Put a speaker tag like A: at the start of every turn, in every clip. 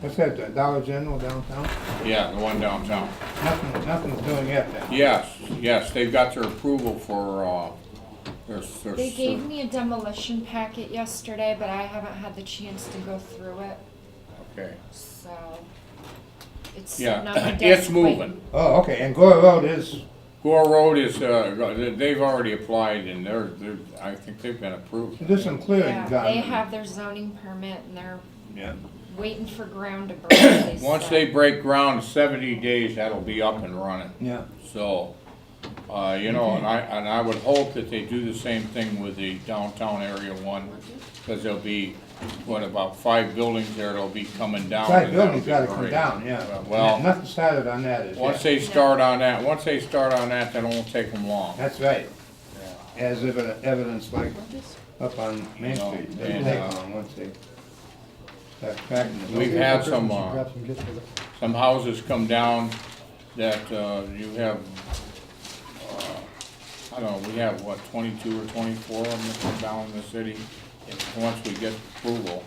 A: What's that, the Dollar General downtown?
B: Yeah, the one downtown.
A: Nothing, nothing's doing yet then.
B: Yes, yes, they've got their approval for, uh, their, their.
C: They gave me a demolition packet yesterday, but I haven't had the chance to go through it,
B: Okay,
C: so. It's
B: Yeah,
C: sitting on my
B: it's
C: desk
B: moving.
C: waiting.
A: Oh, okay, and Gore Road is,
B: Gore Road is, uh, they've already applied and they're, they're, I think they've been approved.
A: there's some clearing
C: Yeah,
A: done.
C: they have their zoning permit and they're
A: Yeah.
C: waiting for ground to break. they
B: Once
C: said.
B: they break ground, seventy days, that'll be up and running.
A: Yeah,
B: So, uh, you know, and I, and I would hope that they do the same thing with the downtown area one, because there'll be, what, about five buildings there that'll be coming down.
A: side
B: and that'll
A: building's
B: be
A: gotta come
B: great.
A: down, yeah.
B: Well-
A: Nothing started on that as
B: Once
A: yet.
B: they start on that, once they start on that, that won't take them long.
A: That's right. As evi- evidence like up on Main
B: No,
A: Street, they
B: and,
A: take
B: uh,
A: long once they. start cracking the
B: We've
A: building.
B: had some, uh, some houses come down that, uh, you have, uh, I don't know, we have, what, twenty-two or twenty-four of them that come down in the city, and once we get approval.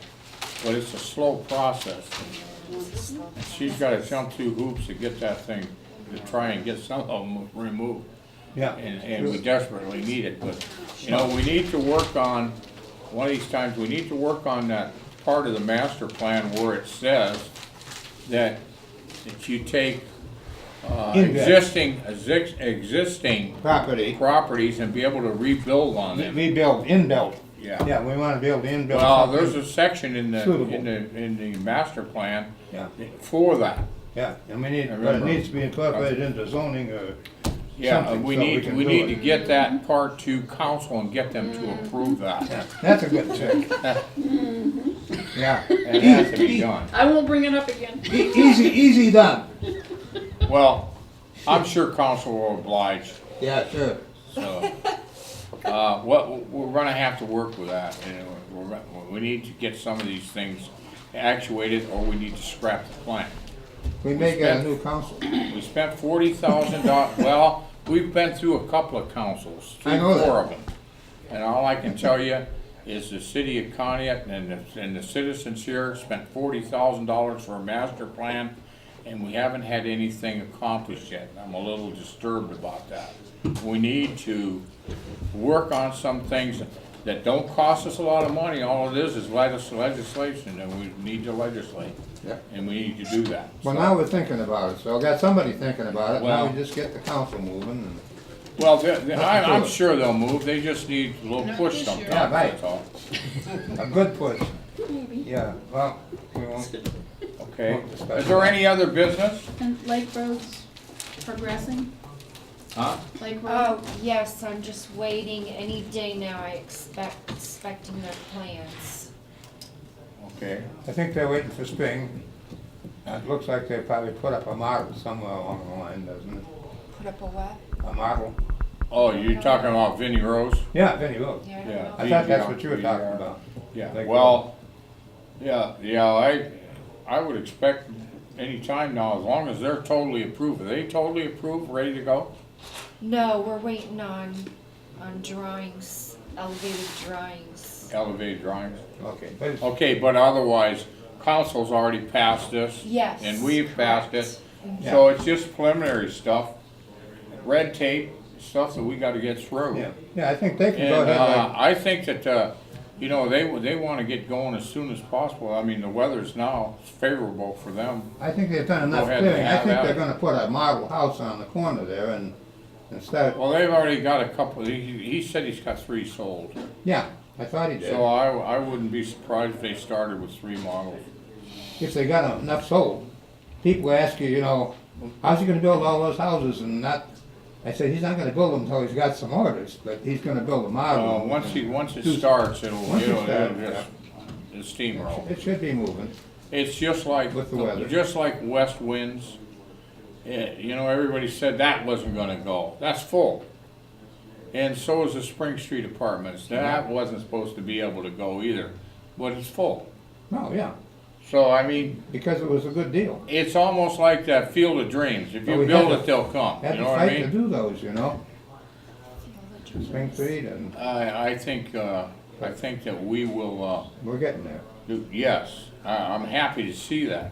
B: But it's a slow process. She's gotta jump through hoops to get that thing, to try and get some of them removed.
A: Yeah,
B: and, and we desperately need it, but, you know, we need to work on, one of these times, we need to work on that part of the master plan where it says that, that you take, uh,
A: Index.
B: existing, exis- existing
A: property,
B: properties and be able to rebuild on them,
A: rebuild, inbuilt.
B: yeah.
A: Yeah, we wanna build inbuilt.
B: Well, there's
A: something.
B: a section in the,
A: Suitable.
B: in the, in the master plan
A: Yeah,
B: for that.
A: yeah, and we need,
B: I
A: but it
B: remember.
A: needs to be incorporated into zoning uh, or
B: Yeah,
A: something,
B: we
A: so we
B: need,
A: can
B: we
A: do
B: need
A: it.
B: to get that part to council and get them to approve that.
A: Yeah, That's a good trick. Yeah,
B: It has to be done.
D: I won't bring it up again.
A: e- easy, easy done.
B: Well, I'm sure council will oblige,
A: Yeah, sure.
B: so, uh, what, we're gonna have to work with that, and we're, gonna- we need to get some of these things actuated, or we need to scrap the plan.
A: We may get a new council.
B: We spent forty thousand dollars. well, we've been through a couple of councils,
A: I
B: three,
A: know that.
B: four of them. And all I can tell you is the city of Conneaut and the, and the citizens here spent forty thousand dollars for a master plan, and we haven't had anything accomplished yet, and I'm a little disturbed about that. We need to work on some things that don't cost us a lot of money, all it is is legis- legislation, and we need to legislate.
A: Yeah.
B: And we need to do that.
A: Well,
B: So-
A: now we're thinking about it, so I got somebody thinking about it, now
B: Well-
A: we just get the council moving and,
B: Well, they're- they're- I,
A: Nothing to
B: I'm
A: it.
B: sure they'll move, they just need a little
D: Not
B: push
D: this year.
B: sometimes,
A: Yeah, right.
B: that's all.
A: a good push. Yeah, well, we won't,
B: Okay,
A: Well,
B: is there any other business?
D: And Lake Road's progressing,
B: Huh?
D: Lake Road.
C: Oh, yes, I'm just waiting any day now, I expect, expecting their plans.
B: Okay,
A: I think they're waiting for spring. It looks like they probably put up a model somewhere along the line, doesn't it?
C: Put up a what?
A: A model?
B: oh, you're talking about Vinnie Rose?
A: Yeah, Vinnie Rose.
C: Yeah, I
B: Yeah.
C: don't know.
A: I thought that's what you were talking about.
B: Yeah,
A: Like-
B: well, yeah, yeah, I, I would expect any time now, as long as they're totally approved, are they totally approved, ready to go?
C: No, we're waiting on, on drawings, elevated drawings.
B: Elevated drawings?
A: Okay, but it's-
B: Okay, but otherwise, council's already passed this.
C: Yes,
B: And we've passed it,
A: correct.
B: so it's just preliminary stuff, red tape, stuff that we gotta get through.
A: yeah, yeah, I think they can go
B: And,
A: ahead like
B: uh, I think that, uh, you know, they, they wanna get going as soon as possible, I mean, the weather's now favorable for them.
A: I think they've done enough
B: Go ahead and
A: clearing, I
B: have
A: think
B: at
A: they're
B: it.
A: gonna put a model house on the corner there and, and start,
B: Well, they've already got a couple, he, he said he's got three sold,
A: yeah, I thought he did.
B: so uh, I, I wouldn't be surprised if they started with three models.
A: If they got enough sold, people ask you, you know, how's he gonna build all those houses and not, I said, he's not gonna build them until he's got some orders, but he's gonna build a
B: Uh,
A: model.
B: once he, once it
A: Who's-
B: starts, it'll,
A: Once it
B: it'll, it'll
A: starts,
B: just, it'll steamroll.
A: It should be moving,
B: It's just like,
A: With the weather.
B: just like west winds. Eh, you know, everybody said that wasn't gonna go. That's full. And so is the Spring Street Apartments. That wasn't supposed to be able to go either, but it's full.
A: no, yeah,
B: So, I mean,
A: because it was a good deal.
B: it's almost like that Field of Dreams. If
A: But
B: you
A: we
B: build
A: had to-
B: it, they'll come.
A: Had
B: You
A: to
B: know what I
A: fight to
B: mean?
A: do those, you know,
C: Elevated
A: Spring
C: drawings.
A: Street and
B: I, I think, uh, I think that we will, uh,
A: we're getting there.
B: do, yes, I, I'm happy to see that.